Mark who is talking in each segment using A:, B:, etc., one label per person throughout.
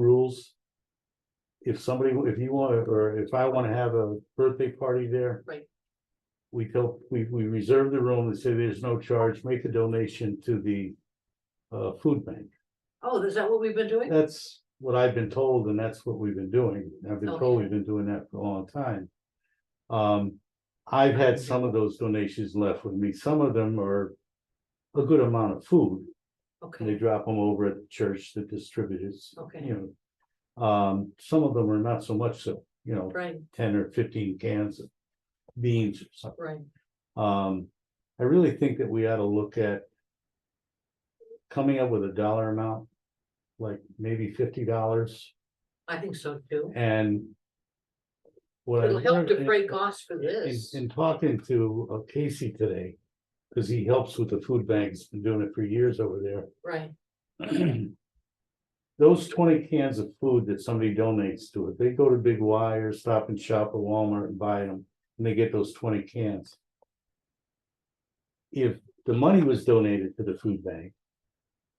A: rules. If somebody, if you want, to or if I wanna have a birthday party there.
B: Right.
A: We tell, we, we reserve the room and say there's no charge, make a donation to the. Uh, food bank.
B: Oh, is that what we've been doing?
A: That's what I've been told and that's what we've been doing. I've been told
B: Okay.
A: we've been doing that for a long time. Um, I've had some of those donations left with me. Some of them are. A good amount of food. and They
B: Okay,
A: drop them over at the church that distributes
B: okay,
A: you know. Um, some of them are not so much so, you know,
B: right,
A: ten or fifteen cans of beans or something.
B: right,
A: Um, I really think that we ought to look at. Coming up with a dollar amount, like maybe fifty dollars
B: I think so too.
A: and. what I
B: It'll help to
A: learned-
B: break costs for
A: in,
B: this.
A: in talking to uh, Casey today, because he helps with the food banks, been doing it for years over there.
B: Right,
A: Those twenty cans of food that somebody donates to it, they go to Big Y or Stop and Shop or Walmart and buy them, and they get those twenty cans. If the money was donated to the food bank,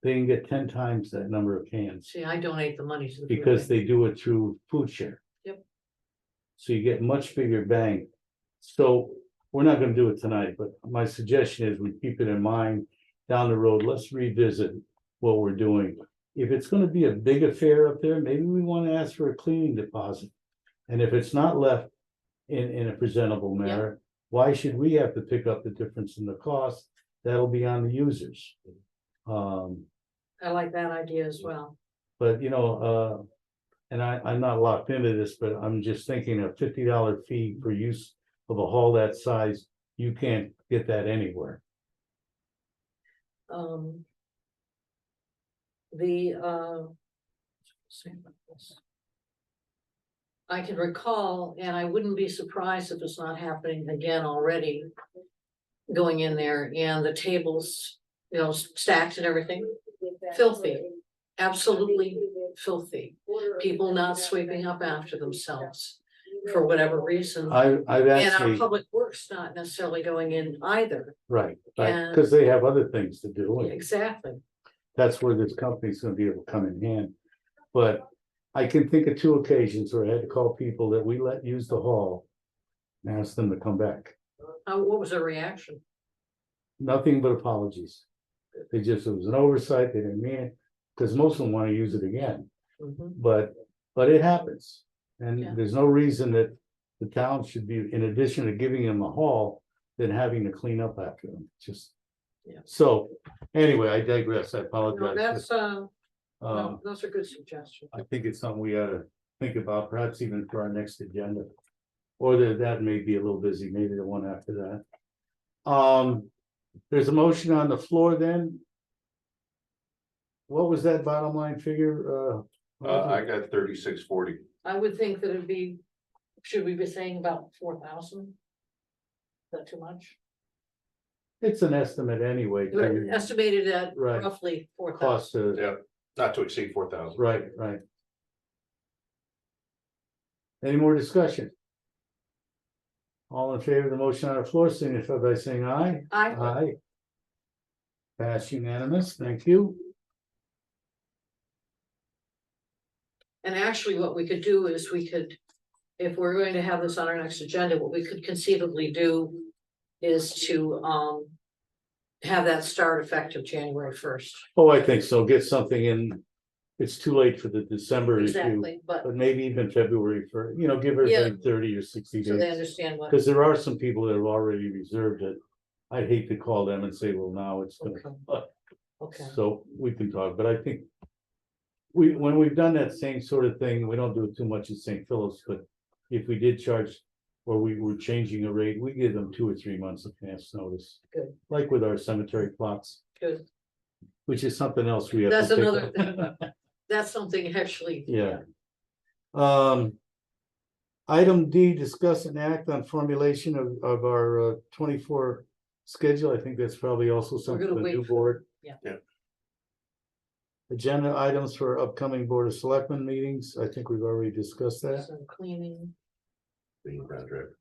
A: they can get ten times that number of cans,
B: see, I donate the money to the. food
A: because
B: bank.
A: they do it through food share.
B: Yep.
A: So you get much bigger bang. So we're not gonna do it tonight, but my suggestion is we keep it in mind down the road, let's revisit what we're doing. If it's gonna be a big affair up there, maybe we wanna ask for a cleaning deposit. And if it's not left in, in a presentable manner, why should we have to pick up the difference in the cost? That'll be on the users. Um,
B: I like that idea as well.
A: but you know, uh. And I, I'm not locked into this, but I'm just thinking a fifty dollar fee for use of a hall that size, you can't get that anywhere.
B: Um. The, uh. say about this. I can recall, and I wouldn't be surprised if it's not happening again already. Going in there and the tables, you know, stacks and everything, filthy, absolutely filthy. People not sweeping up after themselves for whatever reason.
A: I, I've
B: And our
A: actually,
B: public works not necessarily going in either,
A: right, right,
B: and-
A: cause they have other things to do, and
B: exactly.
A: that's where this company's gonna be able to come in hand. But I can think of two occasions where I had to call people that we let use the hall. And ask them to come back,
B: How, Uh, what was their reaction?
A: nothing but apologies. They just, it was an oversight, they didn't mean it, cause most of them wanna use it again.
B: Mhm.
A: But, but it happens.
B: Yeah.
A: And there's no reason that the town should be, in addition to giving them a haul, than having to clean up after them, just.
B: Yeah.
A: So, anyway, I digress, I
B: No,
A: apologize.
B: that's, uh,
A: Um,
B: no, those are good suggestions.
A: I think it's something we ought to think about, perhaps even for our next agenda. Or that, that may be a little busy, maybe the one after that. Um, there's a motion on the floor then. What was that bottom line figure, uh?
C: Uh, I got thirty-six forty.
B: I would think that it'd be, should we be saying about four thousand? Is that too much?
A: It's an estimate anyway, to
B: Estimated at
A: Right.
B: roughly four thousand.
A: cost to,
C: Yeah. Not to exceed four thousand.
A: right, right. Any more discussion? All in favor of the motion on the floor, signify by saying aye.
B: I,
A: Aye. Pass unanimous, thank you.
B: and actually what we could do is we could, if we're going to have this on our next agenda, what we could conceivably do is to, um, have that start effective January first.
A: Oh, I think so, get something in, it's too late for the December issue,
B: Exactly, but
A: but maybe even February for, you know, give her
B: Yeah.
A: like thirty or sixty
B: so they
A: days.
B: understand what.
A: Because there are some people that have already reserved it. I'd hate to call them and say, well, now it's gonna
B: Okay.
A: but-
B: Okay,
A: So we can talk, but I think. We, when we've done that same sort of thing, we don't do it too much at St. Philip's, but if we did charge. Or we were changing a rate, we give them two or three months of advance notice.
B: Good.
A: Like with our cemetery plots,
B: good.
A: which is something else we have. to
B: That's
A: pick
B: another
A: up.
B: thing. That's something actually.
A: Yeah. Um. Item D, discuss and act on formulation of, of our uh, twenty-four schedule. I think that's probably also
B: We're
A: something
B: gonna
A: the new
B: wait.
A: board.
B: Yeah.
C: Yeah.
A: Agenda items for upcoming Board of Selectmen meetings. I think we've already discussed that.
B: Some cleaning.
C: Being ground driver.